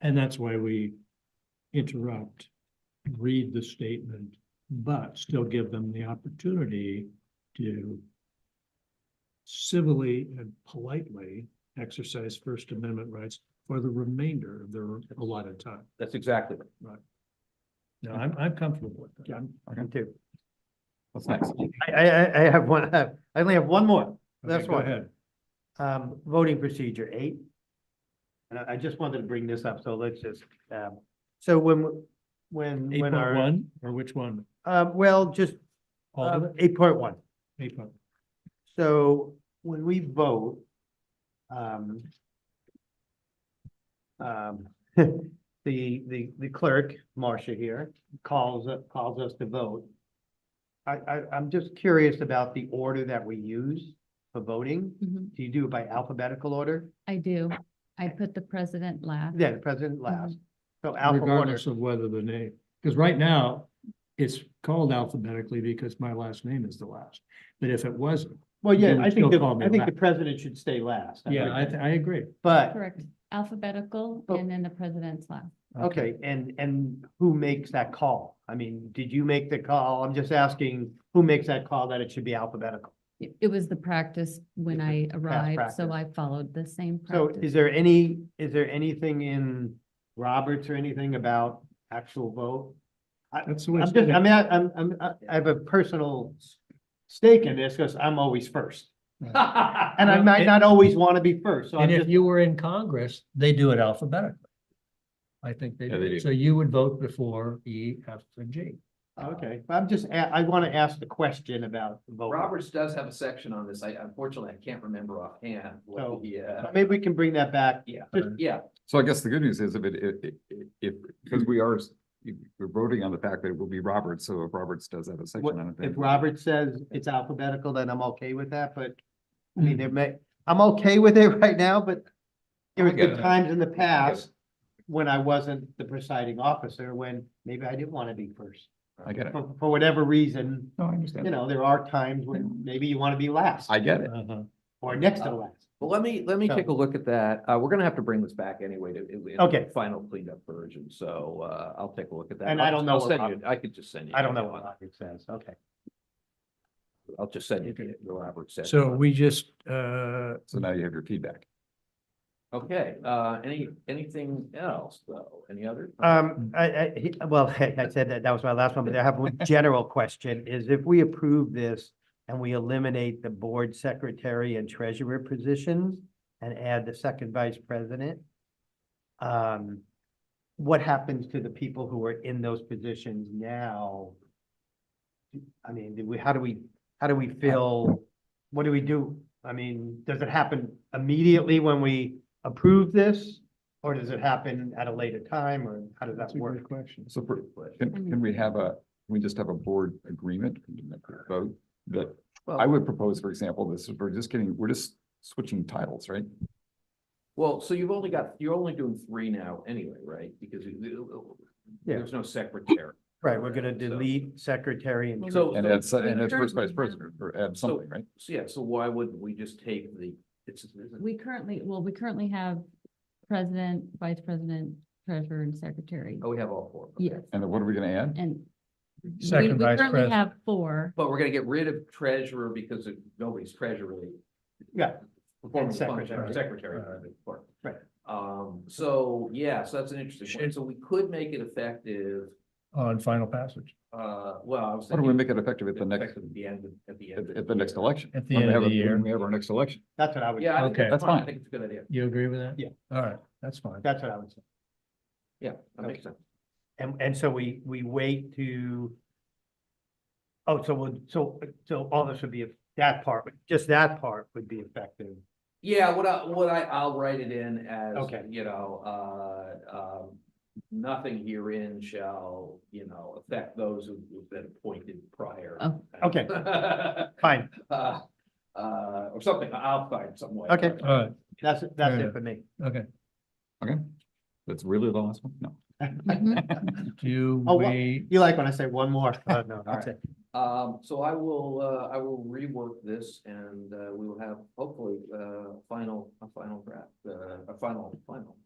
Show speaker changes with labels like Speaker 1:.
Speaker 1: And that's why we interrupt, read the statement, but still give them the opportunity to civilly and politely exercise First Amendment rights for the remainder of their allotted time.
Speaker 2: That's exactly right.
Speaker 1: Now, I'm, I'm comfortable with that. I'm-
Speaker 3: Me too.
Speaker 2: What's next?
Speaker 3: I, I, I- I have one, I only have one more. That's
Speaker 1: Okay, go
Speaker 3: why.
Speaker 1: ahead.
Speaker 3: Um, voting procedure eight. And I, I just wanted to bring this up, so let's just, um, so when, when,
Speaker 1: Eight
Speaker 3: when
Speaker 1: point
Speaker 3: our,
Speaker 1: one, or which one?
Speaker 3: uh, well, just, um,
Speaker 1: All of it?
Speaker 3: eight point one.
Speaker 1: Eight point,
Speaker 3: So when we vote, um, um, the, the, the clerk, Marcia here, calls, calls us to vote. I, I, I'm just curious about the order that we use for voting.
Speaker 4: Mhm.
Speaker 3: Do you do it by alphabetical order?
Speaker 4: I do. I put the president last.
Speaker 3: Yeah, the president last. So alpha order.
Speaker 1: Mm-hmm. regardless of whether the name, because right now, it's called alphabetically because my last name is the last. But if it wasn't,
Speaker 3: Well,
Speaker 1: you
Speaker 3: yeah,
Speaker 1: would
Speaker 3: I
Speaker 1: still
Speaker 3: think, the-
Speaker 1: call me
Speaker 3: I think the
Speaker 1: last.
Speaker 3: president should stay last.
Speaker 1: yeah, I, I agree.
Speaker 3: But,
Speaker 4: Correct. Alphabetical
Speaker 3: Oh.
Speaker 4: and then the president's last.
Speaker 3: okay, and, and who makes that call? I mean, did you make the call? I'm just asking, who makes that call that it should be alphabetical?
Speaker 4: It, it was the practice when
Speaker 3: It's
Speaker 4: I arrived,
Speaker 3: practice.
Speaker 4: so I followed the same
Speaker 3: So is
Speaker 4: practice.
Speaker 3: there any, is there anything in Roberts or anything about actual vote?
Speaker 1: That's the way.
Speaker 3: I'm
Speaker 1: it's
Speaker 3: just, I
Speaker 1: done.
Speaker 3: mean, I- I'm, I'm, I I have a personal stake in this because I'm always first. And I might not always want to be first, so I'm
Speaker 5: And if
Speaker 3: just,
Speaker 5: you were in Congress, they do it alphabetically. I think they
Speaker 2: Yeah, they
Speaker 5: do.
Speaker 2: do.
Speaker 5: So you would vote before E, F, and G.
Speaker 3: okay, I'm just, a- I want to ask the question about voting.
Speaker 6: Roberts does have a section on this. I unfortunately, I can't remember offhand.
Speaker 3: Oh.
Speaker 6: what the, uh,
Speaker 3: Maybe we can bring that back.
Speaker 6: Yeah.
Speaker 3: Just-
Speaker 6: Yeah,
Speaker 2: So I guess the good news is if it, i- i- i- if, because we are, s- we're voting on the fact that it will be Roberts, so if Roberts does have a
Speaker 3: What-
Speaker 2: section on it. then-
Speaker 3: If Robert says it's alphabetical, then I'm okay with that, but I mean,
Speaker 2: Hmm.
Speaker 3: there may, I'm okay with it right now, but there have
Speaker 2: get
Speaker 3: been
Speaker 2: it.
Speaker 3: times in the past when I wasn't the presiding officer, when maybe I didn't want to be first.
Speaker 2: I get it.
Speaker 3: For, for whatever reason,
Speaker 2: No, I
Speaker 3: you
Speaker 2: understand.
Speaker 3: know, there are times when maybe you want to be last
Speaker 2: Hmm. I Uh, get it.
Speaker 1: Uh-huh.
Speaker 3: or next to last.
Speaker 6: but let me, let me
Speaker 3: So-
Speaker 6: take a look at that. Uh, we're gonna have to bring this back anyway to. in the
Speaker 3: Okay.
Speaker 6: Final cleanup version, so, uh, I'll take a look at that.
Speaker 3: And I
Speaker 6: I'll-
Speaker 3: don't know
Speaker 6: I'll
Speaker 3: what
Speaker 6: send
Speaker 3: Rob-
Speaker 6: you- I could just send you.
Speaker 3: I don't know
Speaker 6: that
Speaker 3: what
Speaker 6: one.
Speaker 3: Roberts says, okay.
Speaker 6: I'll just send you the the Roberts section.
Speaker 5: So we just, uh,
Speaker 2: So now you have your feedback.
Speaker 6: Okay, uh, any, anything else though? Any other?
Speaker 3: Um, I, I, he- well, I said that, that was my last one, but I have one general question, is if we approve this and we eliminate the board secretary and treasurer positions and add the second vice president, um, what happens to the people who are in those positions now? I mean, do we, how do we, how do we fill, what do we do? I mean, does it happen immediately when we approve this? Or does it happen at a later time, or how does that
Speaker 1: That's a great
Speaker 3: work?
Speaker 1: question.
Speaker 2: So for- can, can we have a, can we just have a board agreement vote that, I would propose, for example, this, is- we're just getting, we're just switching titles, right?
Speaker 6: Well, so you've only got, you're only doing three now anyway, right? Because you-
Speaker 3: Yeah.
Speaker 6: there's no secretary.
Speaker 3: Right, we're gonna
Speaker 6: So-
Speaker 3: delete secretary and.
Speaker 6: So-
Speaker 2: And
Speaker 6: so-
Speaker 2: add, se- and add first vice
Speaker 4: Currently-
Speaker 2: president or add something, right?
Speaker 6: So yeah, so why wouldn't we just take the, it's,
Speaker 4: We currently, well, we currently have president, vice president, treasurer and secretary.
Speaker 6: oh, we have all four. okay.
Speaker 4: Yes,
Speaker 2: And then what are we gonna add?
Speaker 4: and we-
Speaker 5: Second
Speaker 4: we
Speaker 5: vice
Speaker 4: currently
Speaker 5: president.
Speaker 4: have four.
Speaker 6: But we're gonna get rid of treasurer because of- nobody's treasurer.
Speaker 3: Yeah.
Speaker 6: Performing
Speaker 3: And
Speaker 6: the function
Speaker 3: secretary.
Speaker 6: of secretary. part.
Speaker 3: Right.
Speaker 6: Um, so, yeah, so that's an interesting one.
Speaker 5: Should-
Speaker 6: So we could make it effective,
Speaker 5: on final passage
Speaker 6: uh, well, I was
Speaker 2: How do we
Speaker 6: thinking.
Speaker 2: make it effective at the next,
Speaker 6: effective At the end, of- at the end.
Speaker 2: at,
Speaker 6: of
Speaker 2: at the next election?
Speaker 5: at the
Speaker 2: When we
Speaker 5: end of
Speaker 2: have
Speaker 5: the
Speaker 2: a- when
Speaker 5: year.
Speaker 2: We have our next election.
Speaker 3: That's what I would,
Speaker 6: Yeah, I think
Speaker 5: Okay.
Speaker 6: that's fine. I
Speaker 2: That's
Speaker 6: think it's a good idea.
Speaker 5: You agree with that?
Speaker 3: Yeah.
Speaker 5: All right, that's fine.
Speaker 3: that's what I would say.
Speaker 6: Yeah, that makes sense.
Speaker 3: And, and so we, we wait to. Oh, so we'll so, so all this would be, that part, just that part would be effective.
Speaker 6: Yeah, what I, what I, I'll write it in as,
Speaker 3: Okay.
Speaker 6: you know, uh, um, nothing herein shall, you know, affect those who- who've been appointed prior.
Speaker 4: Oh.
Speaker 3: Okay.
Speaker 6: Uh,
Speaker 3: Fine,
Speaker 6: uh, or something, I'll find some way.
Speaker 3: Okay.
Speaker 5: All right,
Speaker 3: that's, it- that's
Speaker 5: Fair
Speaker 3: it
Speaker 5: enough.
Speaker 3: for me.
Speaker 5: okay.
Speaker 2: Okay. That's really the last one? No.
Speaker 4: Mhm.
Speaker 5: Do
Speaker 3: Oh, what-
Speaker 5: we,
Speaker 3: You like when I say one more? Uh, no, that's it.
Speaker 6: Um, so I will, uh, I will rework this and, uh, we will have hopefully, uh, final, a final draft, uh, a final, final